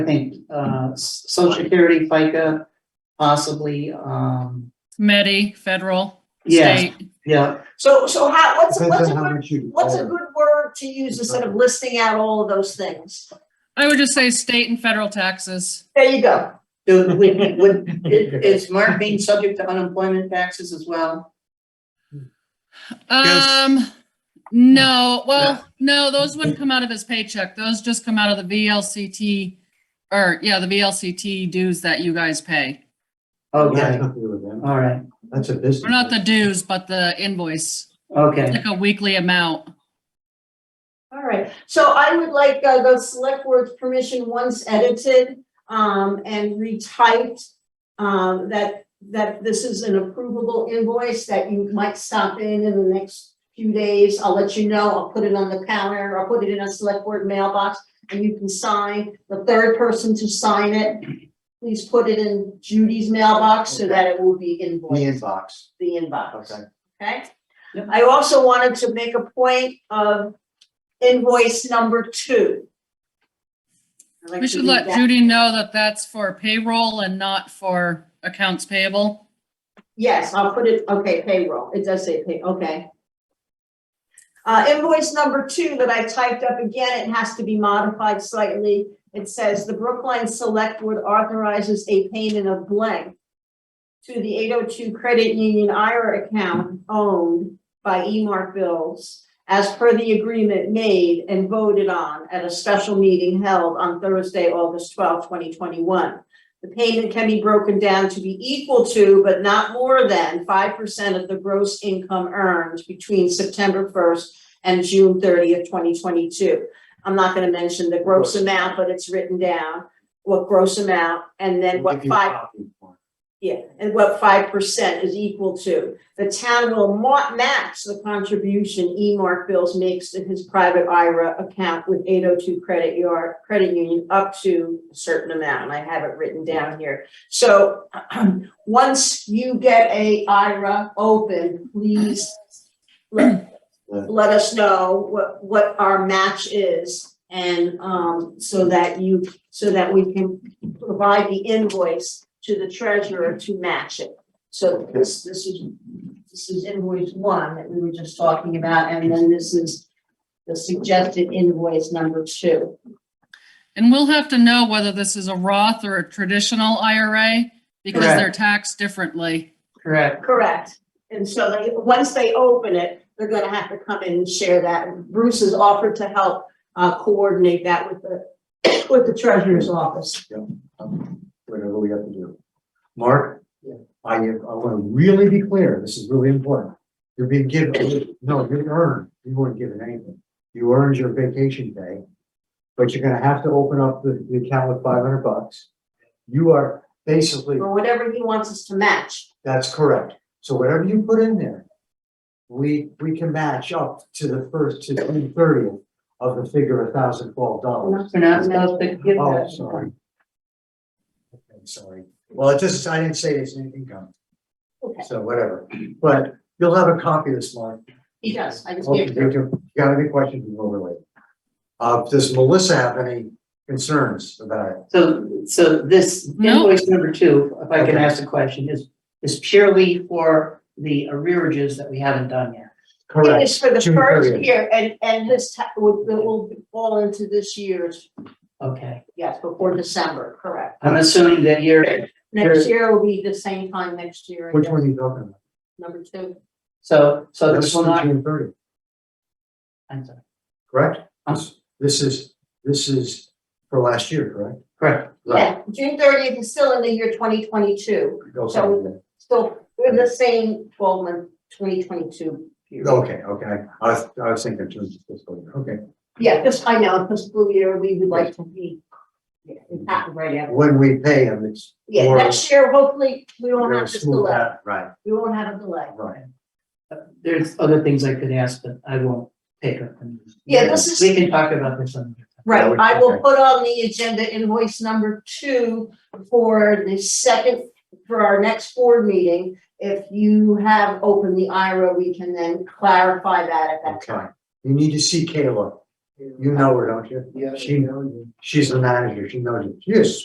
I think, uh, s- social security, FICA, possibly, um, Medi, federal, yeah, state. yeah. So, so how, what's, what's a good, much you. what's a good word to use instead of listing out all of those things? I would just say state and federal taxes. There you go. Do, would, would, i- is Mark being subject to unemployment taxes as well? Um, no, well, no, those wouldn't come out of his paycheck. Those just come out of the VLCT. Or, yeah, the VLCT dues that you guys pay. oh, Okay, all right, That's a business. Or not the dues, but the invoice, okay, like a weekly amount. All right. So I would like, uh, the select board's permission once edited, um, and retyped, um, that, that this is an approvable invoice that you might stop in in the next few days. I'll let you know. I'll put it on the counter. I'll put it in a select board mailbox and you can sign. The third person to sign it, please put it in Judy's mailbox so that it will be The invoiced. inbox, the inbox, okay. okay? Yep. I also wanted to make a point of invoice number two. I'd like We to should read let that. Judy know that that's for payroll and not for accounts payable. Yes, I'll put it, okay, payroll, it does say pay, okay. Uh, invoice number two that I typed up again, it has to be modified slightly. It says the Brookline Select Board authorizes a payment of blank to the eight oh two Credit Union IRA account owned by Emark Bills as per the agreement made and voted on at a special meeting held on Thursday, August twelfth, twenty twenty-one. The payment can be broken down to be equal to, but not more than, five percent of the gross income earned between September first and June thirtieth, twenty twenty-two. I'm not gonna mention the gross amount, but it's written down, what gross amount, and then what We'll give you a five copy for yeah, and what five percent is equal to. The town will ma- match the contribution E Mark Bills makes to his private IRA account with eight oh two credit yard, credit union up to a certain amount, and I have it written down here. So once you get a IRA open, please let, let us know what, what our match is. And um, so that you, so that we can provide the invoice to the treasurer to match it. So this, this is, this is invoice one that we were just talking about, and then this is the suggested invoice number two. And we'll have to know whether this is a Roth or a traditional IRA because Correct. they're taxed differently. correct, Correct. And so they, once they open it, they're gonna have to come in and share that. Bruce has offered to help uh coordinate that with the, with the treasurer's office. Whatever we have to do. Mark? I, I want to really be clear, this is really important. You're being given, no, you earned, you weren't given anything. You earned your vacation pay, but you're gonna have to open up the, the account with five hundred bucks. You are basically Or whatever he wants us to match. That's correct. So whatever you put in there, we, we can match up to the first, to June thirtieth of the figure of thousand twelve dollars. we're not supposed to give Oh, that. sorry. Okay, sorry. Well, it just, I didn't say it's an income. Okay. So whatever, but you'll have a copy of this, Mark. He does, I just Hope you need to. do. You got any questions, we'll relate. Uh, does Melissa have any concerns about it? So, so this No. invoice number two, if I can Okay. ask a question, is, is purely for the arrearages that we haven't done yet. It Correct. is for the June first 30th. year, and and this ta- will will fall into this year's Okay, Yes, before December, correct. I'm assuming that you're, Next year will be the same time next year, I Which guess, one are you talking about? number two. so, so That's this will for not, June thirtieth. I'm sorry. correct? Um, This- This is, this is for last year, correct? correct, Yeah, June thirtieth is still in the year twenty twenty-two, Go somewhere there. still in the same twelve month, twenty twenty-two. Okay, okay, I was, I was thinking June fiscal year, okay. Yeah, this, I know, fiscal year, we would like to be, yeah, it happened right after. When we pay them, it's. Yeah, more- next year, hopefully, we won't we're have this smooth delay, out. Right, we won't have a delay. right. there's other things I could ask, but I won't take up. them. Yeah, this is- We can talk about this on. Right, That would- I will okay. put on the agenda invoice number two for the second, for our next board meeting. If you have opened the IRA, we can then clarify that at that time. Okay, you need to see Kayla You know her, don't you? Yeah. She- She's the manager, she knows it. She is